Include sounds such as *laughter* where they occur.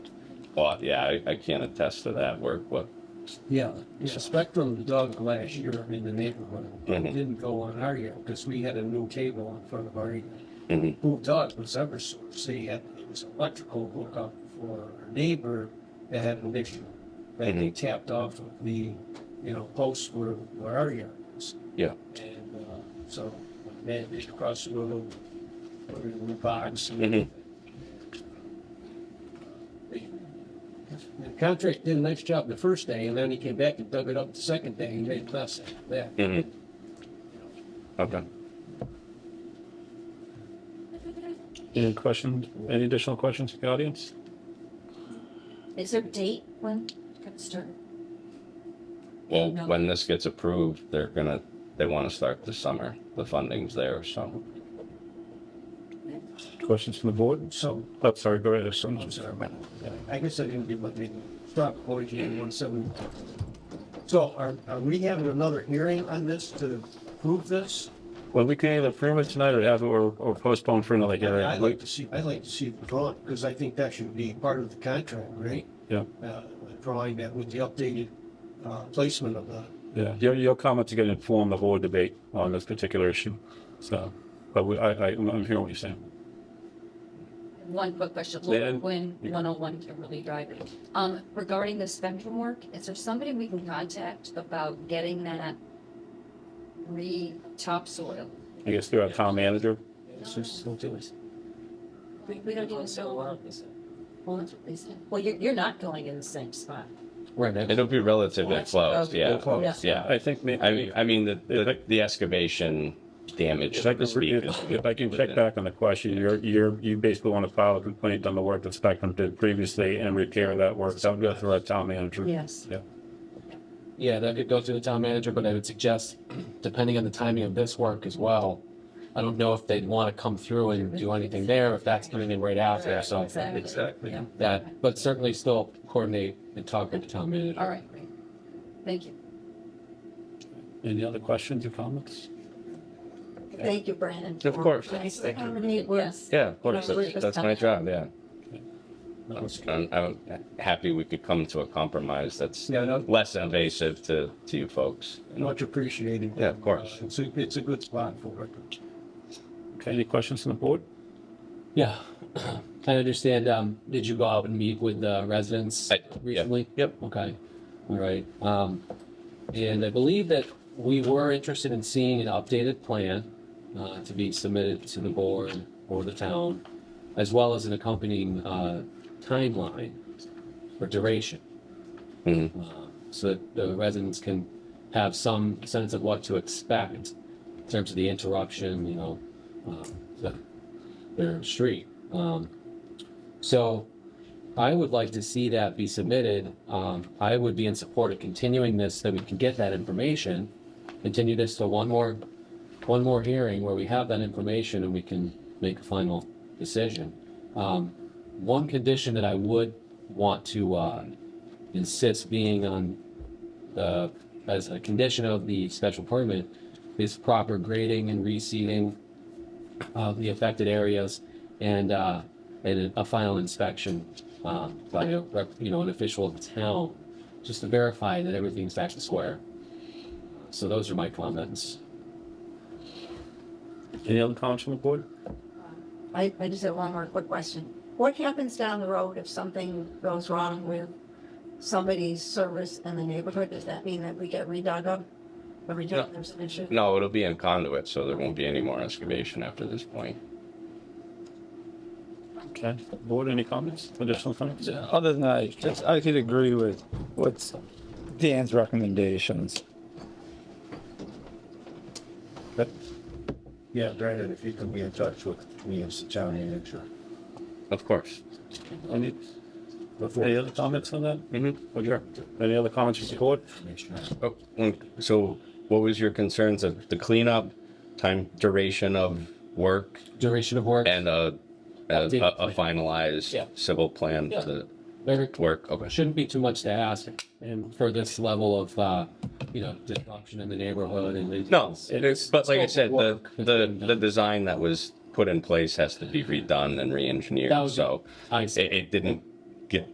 bought, yeah, I, I can't attest to that work, but Yeah, the Spectrum dug last year in the neighborhood. It Mhm. Didn't go on our yard because we had a new cable in front of our yard. Mhm. Who dug was Eversource. They had, it was electrical hookup for our neighbor that had an issue. And they tapped off of the, you know, post where, where our yard was. yeah. And, uh, so when that is across the road, or in the box. and Mhm. The the contractor did a nice job the first day, and then he came back and dug it up the second day, and made less after that. Mhm. Okay. Any questions, any additional questions from the audience? Is there a date when it's gonna start? Well, No. when this gets approved, they're gonna, they wanna start this summer. The funding's there, so. Questions from the board? So, Oh, sorry, go ahead. I'm sorry, man. I guess I didn't give my name, Rob Wojcik, one seventy. So are, are we having another hearing on this to prove this? Well, we can either approve it tonight or have, it- or or postpone for another I'd like hearing. to see, I'd like to see the drawing, because I think that should be part of the contract, right? Yeah, uh, drawing that with the updated uh, placement of the, yeah. Your, your comments are going to inform the whole debate on this particular issue. So, but we, I, I, I'm hearing what you're saying. One quick question, Then- Laura Quinn, one oh one Kimberly Drive. Um, regarding the spectrum work, is there somebody we can contact about getting that re-topsoil? I guess through our town manager. We, we don't even know. Well, that's what they said. Well, you're, you're not going in the same spot. It'll be relatively close, yeah. Yeah. I think, may- I mean, I mean, the, the, the excavation damage, If I so to speak. can, is- if if I can check back on the question, you're, you're, you basically want to file a complaint on the work that Spectrum did previously and repair that work. That would go through our town manager. Yes. Yeah. Yeah, that could go through the town manager, but I would suggest, depending on the timing of this work as well, I don't know if they'd want to come through and do anything there, if that's coming in right after, so. Exactly. Yeah. That, but certainly still coordinate and talk with the town manager. All right, great. Thank you. Any other questions or comments? Thank you, Brandon. Of course. Nice to accommodate us. Yeah, of course, that's, that's my job, yeah. That was- I'm, I'm happy we could come to a compromise that's Yeah, no. less invasive to, to you folks. much appreciated. Yeah, of course. Uh, It's a, it's a good spot for it. Okay, any questions from the board? Yeah, *clears throat* I understand, um, did you go out and meet with the residents I- yeah. recently? Yep. Okay, all right, um, and I believe that we were interested in seeing an updated plan, uh, to be submitted to the board or the town, as well as an accompanying, uh, timeline or duration. Mhm. Uh, So that the residents can have some sense of what to expect in terms of the interruption, you know, uh, the their street. Um, so I would like to see that be submitted. Um, I would be in support of continuing this so that we can get that information. Continue this to one more, one more hearing where we have that information and we can make a final decision. Um, one condition that I would want to, uh, insist being on the, as a condition of the special permit is proper grading and reseeding of uh, the affected areas and, uh, and a final inspection, uh, by, a rep- you know, an official of the town, just to verify that everything's back to square. So those are my comments. Any other comments from the board? I, I just have one more quick question. What happens down the road if something goes wrong with somebody's service in the neighborhood? Does that mean that we get redug up every time there's an issue? No, it'll be in conduit, so there won't be any more excavation after this point. Okay, board, any comments, additional comments? other than that, just, I could agree with what's Dan's recommendations. Yeah, Brandon, if you can be in touch with me as the town manager. Of course. Any, any other comments on that? Mhm. Oh, sure. Any other comments from the board? Oh, mm, So what was your concerns of the cleanup, time, duration of work, Duration of work, and a, a, Updated a Yeah. finalized civil plan Yeah. to very, work? Okay. shouldn't be too much to ask and for this level of, uh, you know, disruption in the neighborhood and. No, it is, but like I said, the, Work has the, been done. the design that was put in place has to be redone and re-engineered, That was- so. I It, see. it didn't